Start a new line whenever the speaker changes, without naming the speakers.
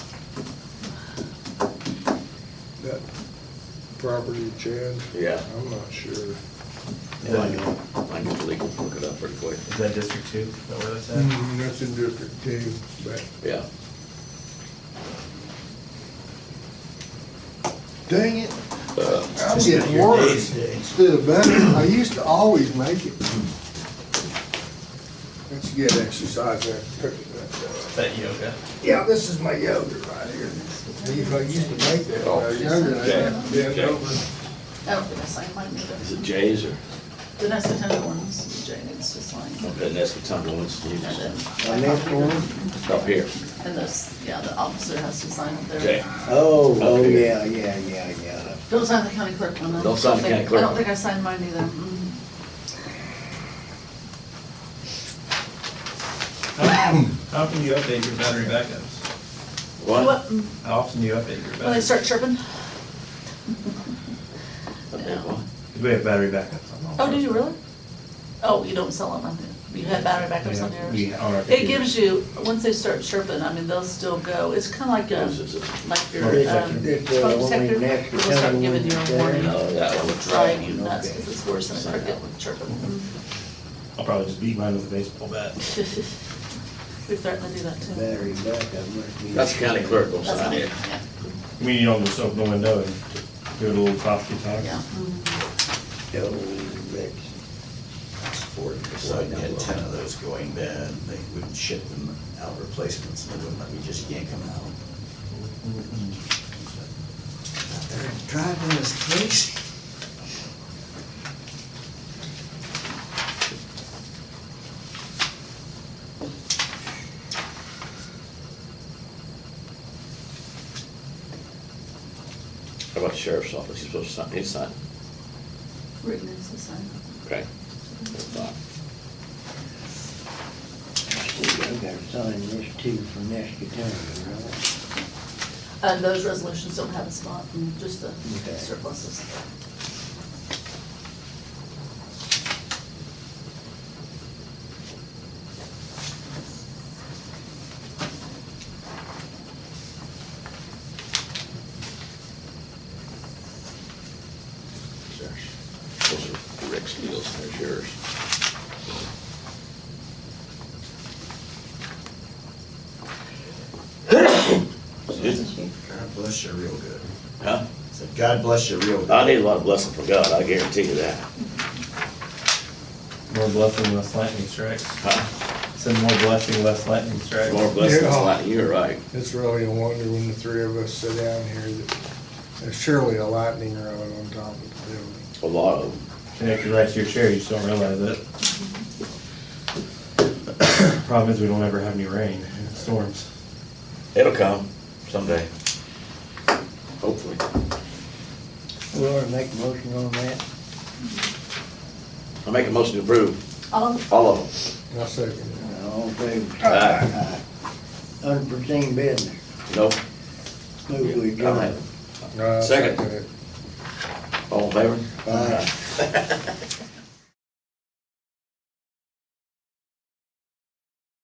that property change?
Yeah.
I'm not sure.
Yeah, I can, I can legal look it up pretty quick.
Is that District Two? Is that where that's at?
Mm, That's in District Two, but
Yeah.
dang it,
Uh,
I'm getting worse instead of better. I used to always make it. That's a good exercise there, picking that up.
Is that E yoga?
Yeah, this is my yoga right here. I used I used to make that
Oh,
when I was younger, I had to bend over.
Oh, for the sign language.
Is it Jay's or,
The next time one's Jay needs to sign.
okay, that's the time when it's
And
used.
My
then,
next one?
Up here.
and this, yeah, the officer has to sign up
Okay.
there.
Oh, oh,
Okay.
yeah, yeah, yeah, yeah.
Don't sign the county clerk one. I
Don't sign the
think-
county clerk
I don't
one.
think I signed mine either. Mm.
How how often do you update your battery backups?
What?
Mm.
How often do you update your
When they
backups?
start chirping?
Okay, what?
We have battery backups on all.
Oh, did you really? Oh, you don't sell them, I think. You have battery backups on
We,
yours.
on our.
It gives you, once they start chirping, I mean, they'll still go. It's kind of like
This
a,
is it.
like your
Smoke
um,
detector. Did, uh,
smoke
when we
detector.
next
It'll start
time
giving
we
you a
did-
warning.
No, that one looks right.
drive you nuts, because it's worse than a cricket with chirping.
I'll probably just beat mine with a baseball bat.
We threatened to do that too.
Battery backup must be.
That's the county clerk will
That's
sign
fine,
it.
yeah,
I mean, you don't just open the window and do a little coffee talk.
yeah.
Oh, Rick.
So I had ten of those going bad, they wouldn't ship them out replacements, they wouldn't let me just yank them out.
Mm-hmm.
They're driving us crazy.
How about the sheriff's office? He's supposed to sign, he's signed.
Written in the sign.
Okay. That's fine.
See, I gotta sign this too for next time, right?
And those resolutions don't have a spot, and just the
Okay.
surpluses.
There's- Those are Rick's deals, there's yours. Excuse me?
God bless you real good.
Huh?
Said, God bless you real
I
good.
need a lot of blessing from God, I guarantee you that.
More blessing, less lightning strikes.
Huh?
Send more blessing, less lightning strikes.
More blessings,
Yeah.
like, you're right.
It's really a wonder when the three of us sit down here that there's surely a lightning rod on top of the building.
A lot of them.
Connected right to your chair, you just don't realize it.
Mm-hmm.
Problem is, we don't ever have any rain, and storms.
It'll come someday. Hopefully.
We ought to make a motion on that.
I make a motion to approve
All,
all of
I'll second it.
All in favor?
Aye.
Aye. Unforeseen business.
them. No?
Move we
All right.
adjourn.
No, I'll
Second.
it.
All in favor?
Aye.